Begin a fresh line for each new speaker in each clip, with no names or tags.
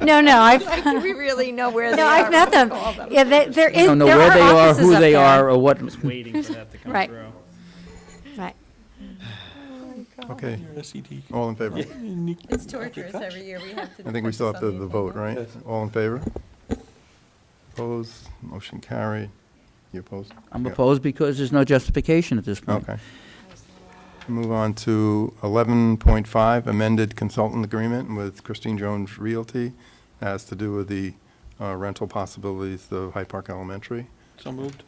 No, no, I've,
Do we really know where they
no,
are?
I've met them.
Call them.
Yeah, they- there
I
is,
don't know
there
where they
are
are,
offices
who
up
they
there.
are, or what,
waiting for that to come
Right.
through.
Right.
Okay,
SED.
all in favor?
It's torturous every year. We have to.
I think we still have to the vote, right? All in favor? Opposed? Motion carried. You opposed?
I'm
Yeah.
opposed because there's no justification at this point.
Okay. Move on to 11.5, amended consultant agreement with Christine Jones Realty. That has to do with the uh, rental possibilities of Hyde Park Elementary.
So moved.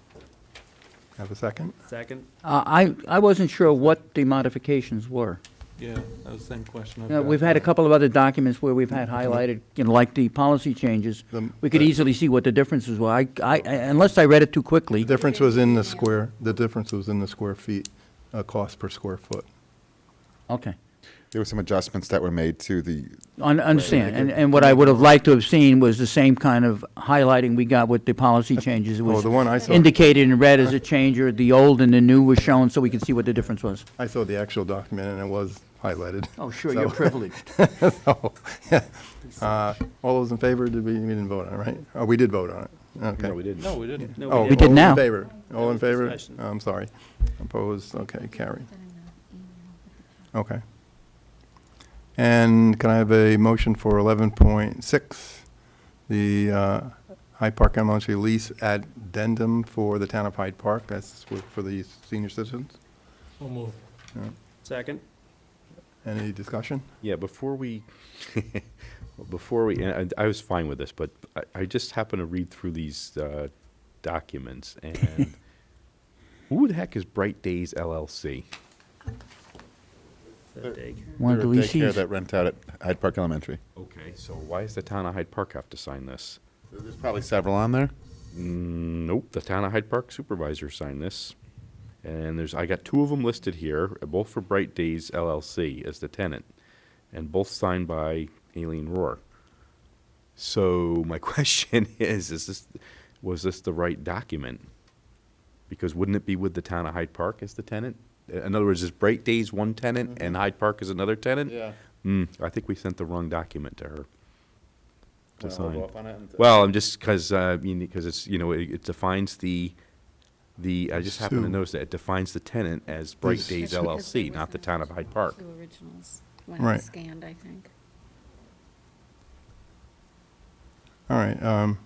Have a second?
Second?
Uh, I, I wasn't sure what the modifications were.
Yeah, that was the same question. I've
Now,
got.
We've had a couple of other documents where we've had highlighted, you know, like the policy changes.
The-
We could
the-
easily see what the differences were. I, I, unless I read it too quickly.
The difference was in the square, the difference was in the square feet, uh, cost per square foot.
Okay.
There were some adjustments that were made to the,
Un- Understand. And, and what I would have liked to have seen was the same kind of highlighting we got with the policy changes. It
Oh,
was
the one I saw,
indicated in red as a change, or the old and the new was shown, so we could see what the difference was.
I saw the actual document and it was highlighted.
Oh, sure,
So-
you're privileged.
So, uh, All those in favor, did we, we didn't vote on it, right? Oh, we did vote on it, okay.
didn't.
No, we didn't.
No,
Oh,
We did
all
now.
in favor? All in
That was
favor?
discussion.
I'm sorry. Opposed? Okay, carry. Okay. And can I have a motion for 11.6, the uh, Hyde Park Elementary lease addendum for the town of Hyde Park? That's for- for the senior citizens?
We'll move.
Yeah.
Second?
Any discussion?
Yeah, before we, before we, and I I was fine with this, but I, I just happened to read through these uh, documents and who the heck is Bright Days LLC?
Is that big?
One of the
They're a daycare
leases.
that rent out at Hyde Park Elementary.
Okay, so why does the town of Hyde Park have to sign this?
There's probably several on there.
Mm, Nope, the town of Hyde Park supervisor signed this. And there's, I got two of them listed here, uh, both for Bright Days LLC as the tenant, and both signed by Aileen Rohr. So my question is, is this, was this the right document? Because wouldn't it be with the town of Hyde Park as the tenant? Uh, In other words, is Bright Days one tenant and Hyde Park is another tenant?
Mm-hmm. Yeah.
Hmm, I think we sent the wrong document to her. To
Wanna Uh, hold
sign.
off on it and-
Well, I'm just, because, because it's, you know, it it defines the, the, I just happened to
Sue.
notice that it defines the tenant as Bright
Yes.
Days LLC, not the town of Hyde Park.
Two originals when
Right.
it's scanned, I think.
All right. um,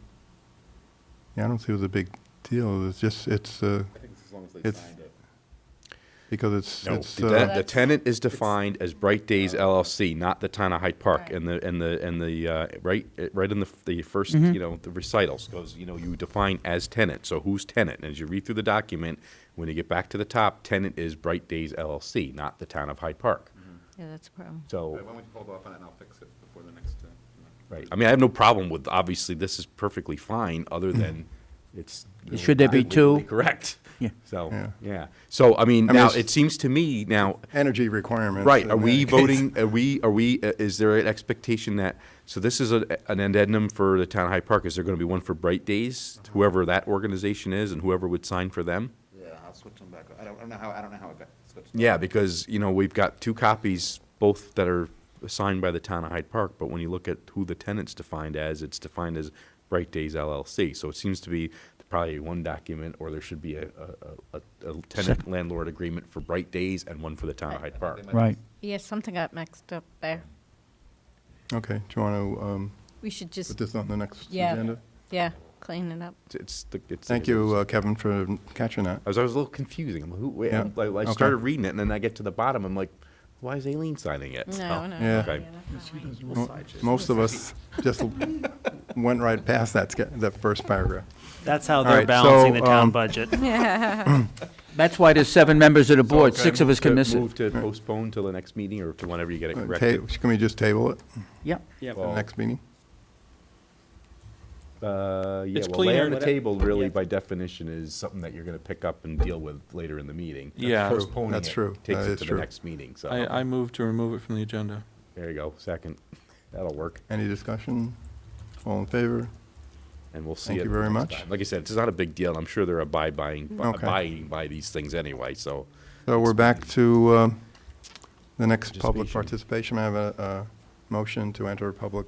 Yeah, I don't see it was a big deal. It's just, it's, uh,
I think it's as long as they
It's-
signed it.
because it's,
No,
it's,
the
uh,
ten- the tenant is defined as Bright Days LLC, not the town of Hyde Park. And the, and the, and the, uh, right, uh, right in the, f- the first,
Mm-hmm.
you know, the recitals goes, you know, you define as tenant, so who's tenant? And as you read through the document, when you get back to the top, tenant is Bright Days LLC, not the town of Hyde Park.
Mm-hmm.
Yeah, that's a problem.
So.
Why don't we hold off on it and I'll fix it before the next, uh,
Right. I mean, I have no problem with, obviously, this is perfectly fine, other than it's.
Should there be two?
legally Correct.
Yeah.
Yeah.
So, yeah. So, I mean,
I mean,
now,
it's-
it seems to me now,
energy requirements.
right,
in
are we
that case.
voting, are we, are we, uh, is there an expectation that, so this is a- an addendum for the town of Hyde Park, is there gonna be one for Bright Days? Whoever that organization is and whoever would sign for them?
yeah, I'll switch them back. I don't, I don't know how, I don't know how it got switched.
Yeah, because, you know, we've got two copies, both that are signed by the town of Hyde Park, but when you look at who the tenant's defined as, it's defined as Bright Days LLC. So it seems to be probably one document, or there should be a, a, a- a tenant landlord agreement for Bright Days and one for the town of Hyde Park.
Right.
Yeah, something got mixed up there.
Okay, do you want
We should
to put
just,
this on the next
Yeah.
agenda?
yeah, clean it up.
It's, the- it's.
Thank you, uh, Kevin, for catching
uh,
that.
I was, I was a little confusing. I'm like, who, wait,
Yeah,
I'm like- I
okay.
started reading it, and then I get to the bottom, I'm like, why is Aileen signing it?
No, no.
Oh, Yeah.
Okay.
that's not right.
Mo- Most of us just went right past that, sca- that first paragraph.
That's how
All
they're
right, so,
balancing the
um,
town budget.
That's why there's seven members of the board. Six of us can miss it.
Move to postpone till the next meeting or to whenever you get it
Uh, ta-
corrected.
Can we just table it,
Yeah.
Yeah.
for the
Well,
next meeting?
Uh, yeah,
It's
well, lay
cleaner
on the
to-
table really
Yeah.
by definition is something that you're gonna pick up and deal with later in the meeting.
Yeah. True.
Postponing
That's
it
true.
Takes
That
it
is
to the
true.
next meeting, so.
I, I move to remove it from the agenda.
There you go, second. That'll work,
Any discussion? All in favor?
and we'll see.
Thank
it
you very
next
much.
time. Like I said, it's not a big deal. I'm sure they're abide buying, bu-
Okay.
abiding by these things anyway, so.
So we're back to um, the next public
Participation.
participation. I have a a motion to enter public